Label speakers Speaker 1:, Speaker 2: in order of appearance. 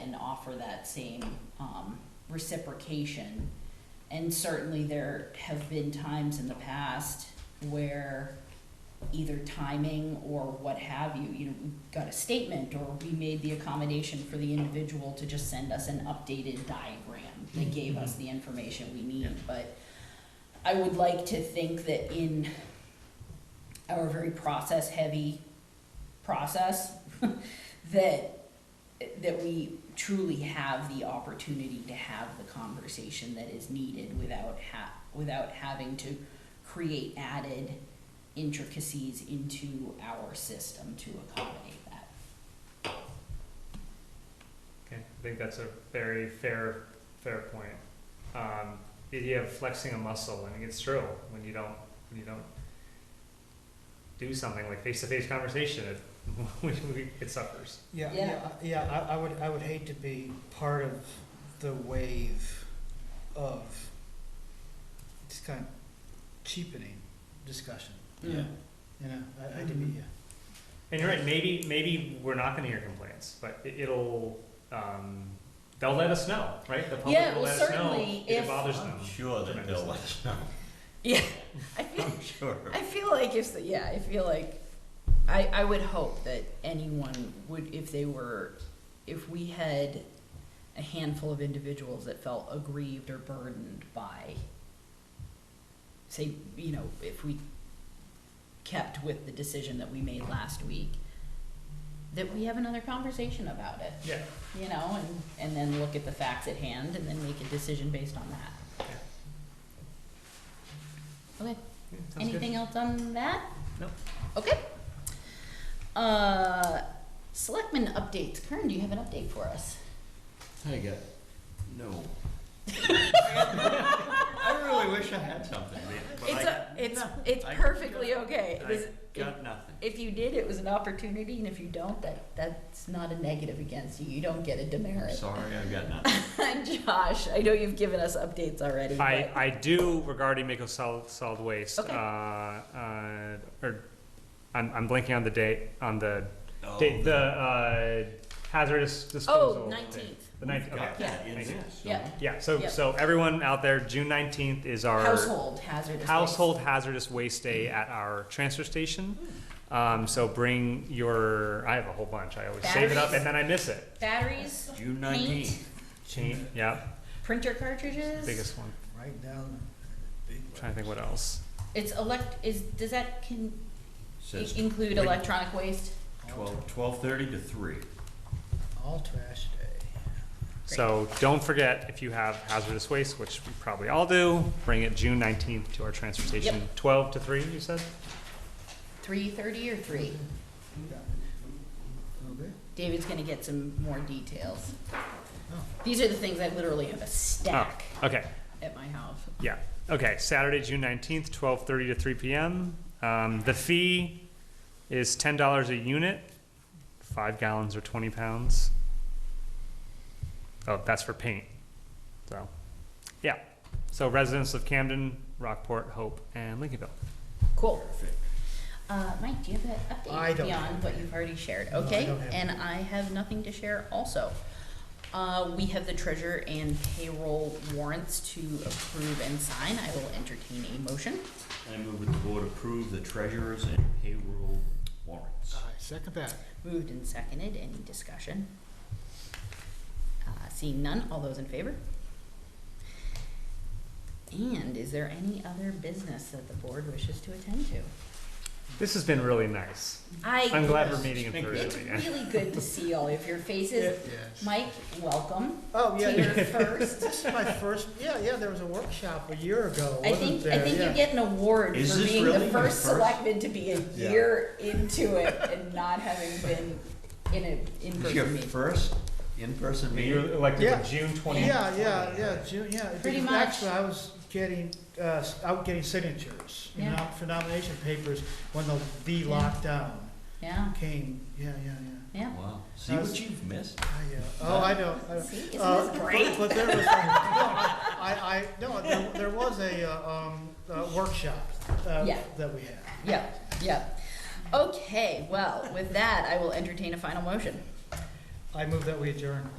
Speaker 1: and offer that same um, reciprocation. And certainly there have been times in the past where either timing or what have you, you know, we got a statement or we made the accommodation for the individual to just send us an updated diagram that gave us the information we need, but I would like to think that in our very process-heavy process, that, that we truly have the opportunity to have the conversation that is needed without ha, without having to create added intricacies into our system to accommodate that.
Speaker 2: Okay, I think that's a very fair, fair point. Um, the idea of flexing a muscle, I mean, it's true, when you don't, when you don't do something like face-to-face conversation, it, we- we- it suffers.
Speaker 3: Yeah,
Speaker 1: Yeah.
Speaker 3: yeah, I- yeah, I, I would, I would hate to be part of the wave of this kind of cheapening discussion,
Speaker 4: Yeah.
Speaker 3: you know, I, I do,
Speaker 2: Mm-hmm.
Speaker 3: yeah.
Speaker 2: And you're right, maybe, maybe we're not gonna hear complaints, but it, it'll, um, they'll let us know, right? The
Speaker 1: Yeah,
Speaker 2: public
Speaker 1: well,
Speaker 2: will let us know
Speaker 1: certainly
Speaker 2: if
Speaker 1: if-
Speaker 2: it bothers them.
Speaker 4: I'm sure that they'll let us know.
Speaker 1: I feel,
Speaker 4: I'm sure.
Speaker 1: I feel like if, the- yeah, I feel like, I, I would hope that anyone would, if they were, if we had a handful of individuals that felt aggrieved or burdened by, say, you know, if we kept with the decision that we made last week, that we have another conversation about it.
Speaker 2: Yeah,
Speaker 1: you know, and, and then look at the facts at hand and then make a decision based on that. Okay,
Speaker 2: yeah, sounds good.
Speaker 1: anything else on that?
Speaker 2: No.
Speaker 1: Okay. Uh, selectmen updates, Kern, do you have an update for us?
Speaker 4: I got, no. I really wish I had something, but
Speaker 1: It's,
Speaker 4: I,
Speaker 1: a- it's, it's
Speaker 4: I-
Speaker 1: perfectly okay.
Speaker 4: I
Speaker 1: This-
Speaker 4: got nothing.
Speaker 1: If you did, it was an opportunity, and if you don't, that, that's not a negative against you, you don't get a
Speaker 4: I'm
Speaker 1: demerit.
Speaker 4: sorry, I got nothing.
Speaker 1: Josh, I know you've given us updates already,
Speaker 2: I,
Speaker 1: but-
Speaker 2: I do regarding Mako solid, solid waste.
Speaker 1: Okay.
Speaker 2: Uh, uh, or, I'm, I'm blanking on the date, on the
Speaker 4: No.
Speaker 2: date, the, uh, hazardous disposal.
Speaker 1: Oh,
Speaker 2: thing.
Speaker 1: nineteenth,
Speaker 2: The nineteenth, okay.
Speaker 4: Got that in
Speaker 2: Thank you.
Speaker 4: there, so-
Speaker 1: Yeah.
Speaker 2: Yeah, so,
Speaker 1: Yep.
Speaker 2: so everyone out there, June nineteenth is our.
Speaker 1: household hazardous waste.
Speaker 2: Household hazardous waste day at our transfer station. Um, so bring your, I have a whole bunch, I always save it up
Speaker 1: Batteries.
Speaker 2: and then I miss it.
Speaker 1: Batteries,
Speaker 4: June
Speaker 1: paint,
Speaker 4: nineteenth.
Speaker 2: Chain, yeah,
Speaker 1: printer cartridges.
Speaker 2: biggest one,
Speaker 3: Right down the big
Speaker 2: trying to think what else.
Speaker 1: It's elect, is, does that can
Speaker 4: Says
Speaker 1: include
Speaker 4: Wait.
Speaker 1: electronic waste?
Speaker 3: All,
Speaker 4: twelve, twelve-thirty to three.
Speaker 3: all trash day.
Speaker 2: So don't forget, if you have hazardous waste, which we probably all do, bring it June nineteenth to our transfer station, twelve to three, you said?
Speaker 1: Three thirty or three?
Speaker 3: Okay.
Speaker 1: David's gonna get some more details.
Speaker 3: Oh.
Speaker 1: These are the things I literally have a stack
Speaker 2: Oh, Okay,
Speaker 1: at my house.
Speaker 2: yeah, okay, Saturday, June nineteenth, twelve thirty to three PM. Um, the fee is ten dollars a unit, five gallons or twenty pounds. Oh, that's for paint, so, yeah, so residents of Camden, Rockport, Hope, and Lincolnville.
Speaker 1: Cool. Uh, Mike, do you have an
Speaker 3: I
Speaker 1: update
Speaker 3: don't
Speaker 1: beyond
Speaker 3: have
Speaker 1: what you've already shared?
Speaker 3: No, I
Speaker 1: Okay,
Speaker 3: don't have
Speaker 1: and I have nothing to share also. Uh, we have the treasurer and payroll warrants to approve and sign. I will entertain a motion.
Speaker 4: I move that the board approve the treasurer's and payroll warrants.
Speaker 1: Uh,
Speaker 3: I second that.
Speaker 1: Moved and seconded, any discussion? Uh, Seeing none, all those in favor? And is there any other business that the board wishes to attend to?
Speaker 2: This has been really nice, I'm
Speaker 1: I,
Speaker 2: glad we're meeting in
Speaker 4: Thank you.
Speaker 2: person
Speaker 1: it's
Speaker 2: again.
Speaker 1: really good to see all of your
Speaker 3: Yeah.
Speaker 1: faces. Mike, welcome
Speaker 3: Oh, yeah,
Speaker 1: to your
Speaker 3: yeah.
Speaker 1: first.
Speaker 3: this is my first, yeah, yeah, there was a workshop a year ago,
Speaker 1: I
Speaker 3: wasn't
Speaker 1: think,
Speaker 3: there?
Speaker 1: I think you
Speaker 3: Yeah.
Speaker 1: get an award
Speaker 4: Is
Speaker 1: for
Speaker 4: this
Speaker 1: being the
Speaker 4: really your
Speaker 1: first
Speaker 4: first?
Speaker 1: selectman to be a
Speaker 4: Yeah.
Speaker 1: year into it and not having been in a
Speaker 4: This is your
Speaker 1: in-person meeting.
Speaker 4: first in-person meeting?
Speaker 2: You're elected
Speaker 3: Yeah.
Speaker 2: for June twenty.
Speaker 3: Yeah, yeah, yeah, June, yeah.
Speaker 1: Pretty
Speaker 3: because
Speaker 1: much.
Speaker 3: Actually, I was getting, uh, I was getting signatures, you
Speaker 1: Yeah.
Speaker 3: know, for nomination papers when the, the
Speaker 1: Yeah.
Speaker 3: lockdown
Speaker 1: Yeah,
Speaker 3: came, yeah, yeah, yeah.
Speaker 1: yeah.
Speaker 4: Wow, see what you've missed?
Speaker 3: I, uh, oh, I know, I know.
Speaker 1: See, isn't
Speaker 3: Uh,
Speaker 1: this
Speaker 3: but-
Speaker 1: great?
Speaker 3: But there was, no, I, I, no, there- there was a, uh, um, uh, workshop, uh,
Speaker 1: Yeah.
Speaker 3: that we had.
Speaker 1: Yep, yep. Okay, well, with that, I will entertain a final motion.
Speaker 3: I move that we adjourn.